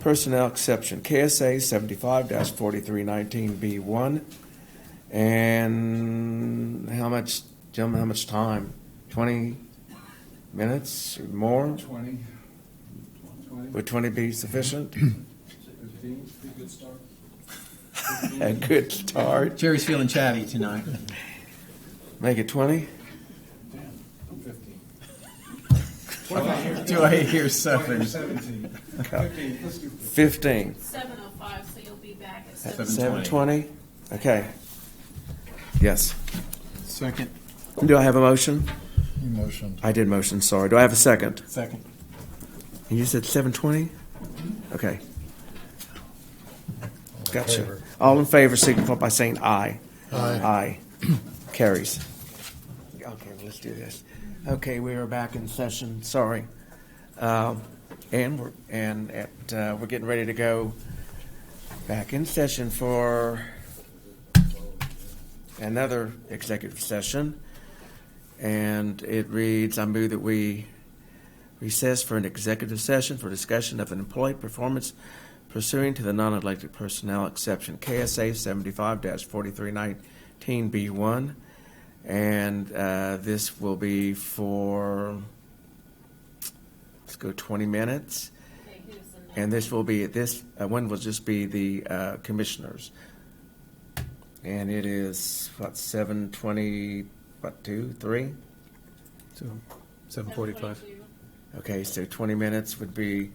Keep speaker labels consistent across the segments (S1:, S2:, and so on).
S1: personnel exception, KSA seventy-five forty-three nineteen B one. And how much, gentlemen, how much time? Twenty minutes or more?
S2: Twenty. Twenty,
S1: Would twenty be sufficient?
S2: fifteen, pretty good start.
S1: A good start.
S3: Jerry's feeling chatty tonight.
S1: Make it twenty?
S2: Fifteen.
S3: Do I hear seven?
S2: Seventeen. Fifteen, let's do fifteen.
S1: Fifteen.
S4: Seven oh five, so you'll be back at
S3: At
S4: seven.
S1: Seven twenty? Okay. Yes.
S3: Second.
S1: Do I have a motion?
S3: Motion.
S1: I did motion, sorry. Do I have a second?
S3: Second.
S1: And you said seven twenty? Okay. Gotcha.
S5: favor.
S1: All in favor, signify by saying aye.
S5: Aye.
S1: Aye. Carries. Okay, well, let's do this. Okay, we are back in session, sorry. Um, And we're, and at, uh, we're getting ready to go back in session for another executive session. And it reads, I move that we recess for an executive session for discussion of an employee performance pursuant to the non-elected personnel exception, KSA seventy-five forty-three nineteen B one. And uh, this will be for, let's go twenty minutes.
S4: Okay, who's the next?
S1: And this will be, this uh, one will just be the uh, commissioners. And it is, what, seven twenty, what, two, three?
S5: So, seven forty-five,
S4: 7:22.
S1: Okay, so 20 minutes would be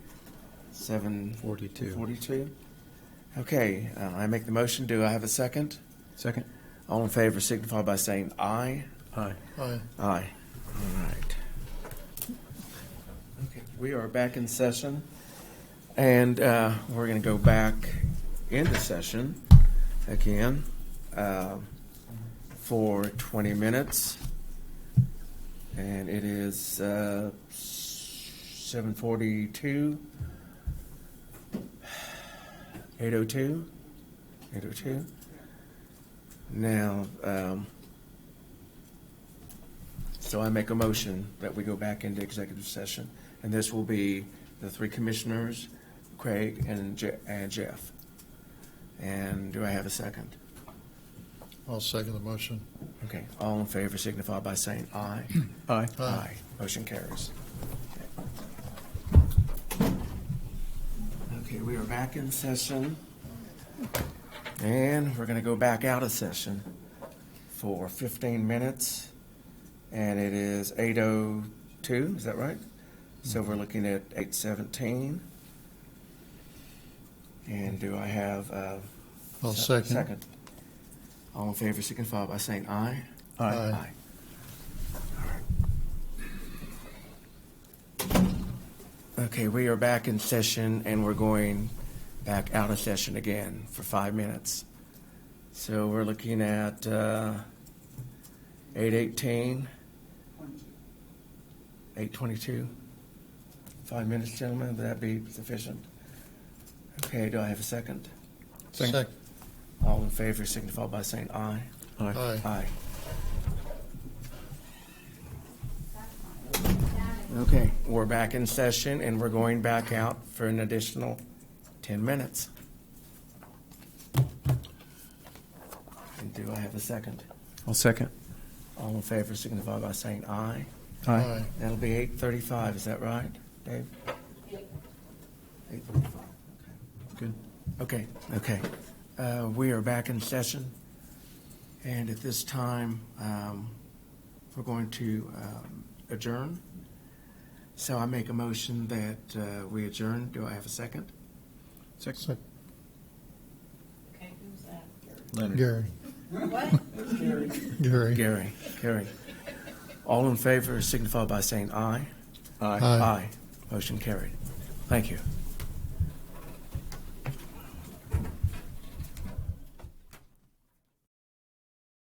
S1: 7...
S5: Forty-two.
S1: 42? Okay, uh, I make the motion. Do I have a second?
S5: second?
S1: All in favor signify by saying aye.
S5: Aye. Aye.
S1: Aye. All right. Okay, we are back in session, and uh, we're going to go back into session again uh, for 20 minutes. And it is uh, 7:42. 8:02? 8:02? Now, um, so I make a motion that we go back into executive session, and this will be the three commissioners, Craig and Je- and Jeff. And do I have a second?
S6: I'll second the motion.
S1: Okay, all in favor signify by saying aye.
S3: Aye.
S6: Aye.
S1: Motion carries. Okay, we are back in session, and we're gonna go back out of session for fifteen minutes, and it is eight oh two, is that right? So we're looking at eight seventeen. And do I have, uh?
S6: I'll
S1: se-
S6: second.
S1: Second. All in favor, signify by saying aye.
S6: Aye.
S1: Okay, we are back in session and we're going back out of session again for five minutes. So we're looking at uh, eight eighteen, eight twenty-two. Five minutes, gentlemen, would that be sufficient? Okay, do I have a second?
S6: Second.
S1: All in favor signify by saying aye.
S6: Aye.
S1: Aye. Okay, we're back in session and we're going back out for an additional ten minutes. And do I have a second?
S5: I'll second.
S1: All in favor signify by saying aye.
S6: Aye.
S1: That'll be eight thirty-five, is that right, Dave? Eight thirty-five.
S5: Good.
S1: Okay, okay. Uh, We are back in session, and at this time, um, we're going to um, adjourn. So I make a motion that uh, we adjourn. Do I have a second?
S6: Second.
S4: Okay, who's that?
S3: Leonard.
S6: Gary,
S4: What?
S6: Gary.
S1: Gary, Gary. All in favor signify by saying aye.
S3: Aye.
S6: Aye.
S1: Motion carried. Thank you.